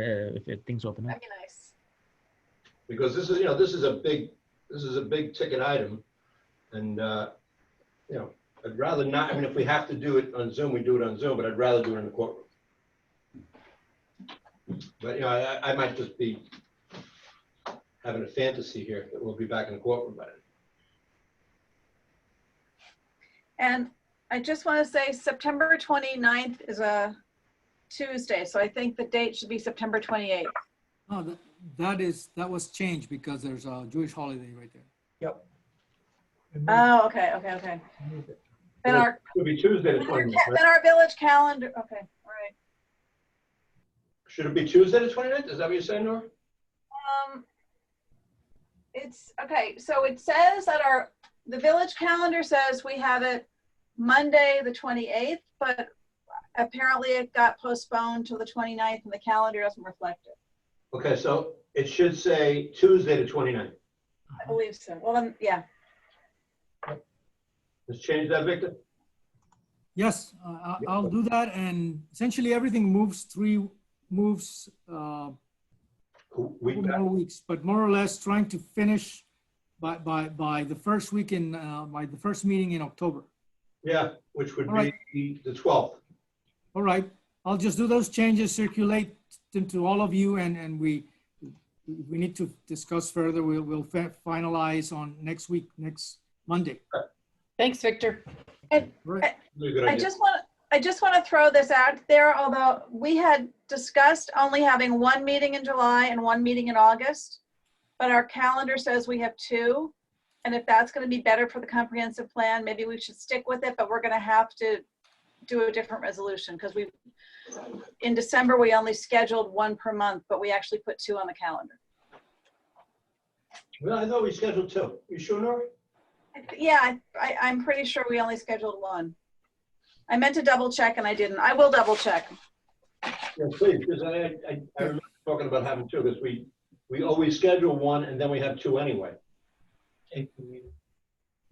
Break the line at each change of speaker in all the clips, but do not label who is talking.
uh, if, if things open up.
That'd be nice.
because this is, you know, this is a big, this is a big ticket item. And, uh, you know, I'd rather not, I mean, if we have to do it on Zoom, we do it on Zoom, but I'd rather do it in the courtroom. But, you know, I, I might just be having a fantasy here that we'll be back in the courtroom by then.
And I just want to say September 29th is a Tuesday, so I think the date should be September 28th.
No, that, that is, that was changed because there's a Jewish holiday right there.
Oh, okay, okay, okay. Then our,
It'll be Tuesday the
then our
29th,
ca-
right?
then our village calendar, okay, all right.
Should it be Tuesday the 29th? Is that what you're saying, Nora?
Um, it's, okay, so it says that our, the village calendar says we have it Monday, the 28th, but apparently it got postponed till the 29th and the calendar doesn't reflect it.
Okay, so it should say Tuesday the 29th.
I believe so. Well, then, yeah,
Let's change that, Victor.
Yes, I- I, I'll do that and essentially everything moves three, moves, uh,
We,
couple more weeks, but more or less trying to finish by, by, by the first week in, uh, by the first meeting in October.
yeah, which would
All right.
be the 12th.
All right, I'll just do those changes, circulate them to all of you, and, and we, we need to discuss further. We'll, we'll fa- finalize on next week, next Monday.
Thanks, Victor.
Right.
Really good
I
idea.
just want, I just want to throw this out there, although we had discussed only having one meeting in July and one meeting in August. But our calendar says we have two. And if that's going to be better for the comprehensive plan, maybe we should stick with it, but we're going to have to do a different resolution because we, in December, we only scheduled one per month, but we actually put two on the calendar.
Well, I thought we scheduled two. You sure, Nora?
Yeah, I- I, I'm pretty sure we only scheduled one. I meant to double check and I didn't. I will double check.
Yeah, please, because I, I, I remember talking about having two, because we, we always schedule one and then we have two anyway.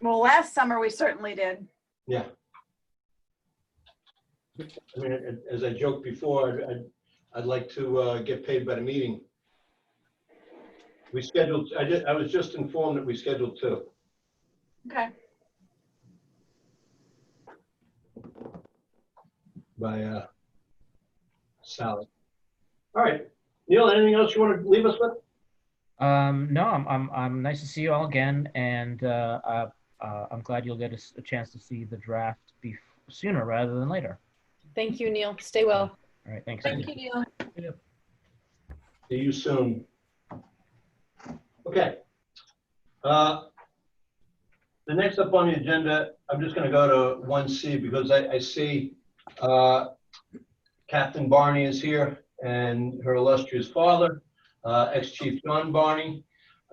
Well, last summer we certainly did.
Yeah. I mean, a- as I joked before, I'd- I'd, I'd like to uh, get paid by the meeting. We scheduled, I did, I was just informed that we scheduled two.
Okay.
by uh, Sally. All right, Neil, anything else you want to leave us with?
Um, no, I'm, I'm, I'm nice to see you all again, and uh, uh, uh, I'm glad you'll get a, s- a chance to see the draft bef- sooner rather than later.
Thank you, Neil. Stay well.
All right, thanks.
Thank you, Neil.
See you soon. Okay. Uh, The next up on the agenda, I'm just going to go to 1C because I, I see uh, Captain Barney is here and her illustrious father, uh, ex-chief John Barney.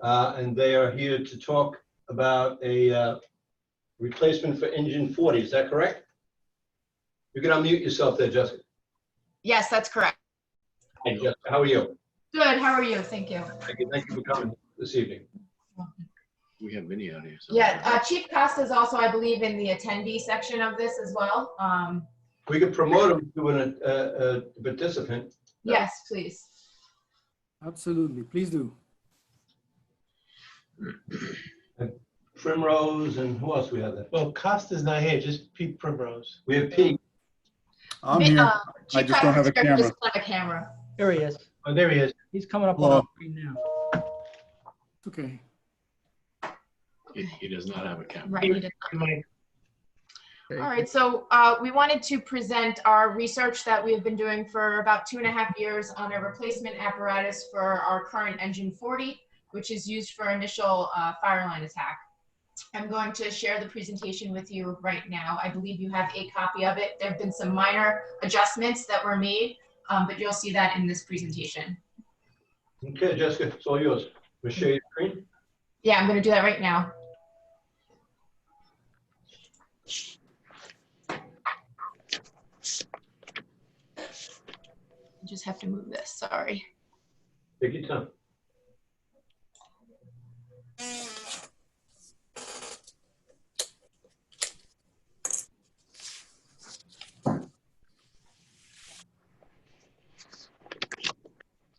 uh, And they are here to talk about a uh, replacement for engine 40, is that correct? You can unmute yourself there, Jessica.
Yes, that's correct.
Hey, Jessica, how are you?
Good, how are you? Thank you.
Thank you, thank you for coming this evening.
We have Vinny out here. so-
Yeah, uh, Chief Costa is also, I believe, in the attendee section of this as well. Um,
We could promote him to an, uh, uh, participant.
Yes, please.
Absolutely, please do.
Primrose and who else we have there?
Well, Costa's not here, just Pete Primrose.
We have Pete.
I'm
Ma-
here.
uh,
I
Chief
just don't
Costa's
have a
here,
camera.
just not a camera.
There he is.
Oh, there he is.
He's coming up on
Hello.
the screen now.
It's okay.
He, he does not have a camera.
Right, he did
Mike.
All right, so uh, we wanted to present our research that we have been doing for about two and a half years on a replacement apparatus for our current engine 40, which is used for initial uh, fire line attack. I'm going to share the presentation with you right now. I believe you have a copy of it. There have been some minor adjustments that were made, um, but you'll see that in this presentation.
Okay, Jessica, it's all yours. Michelle your screen.
Yeah, I'm going to do that right now. I just have to move this, sorry.
Take your time.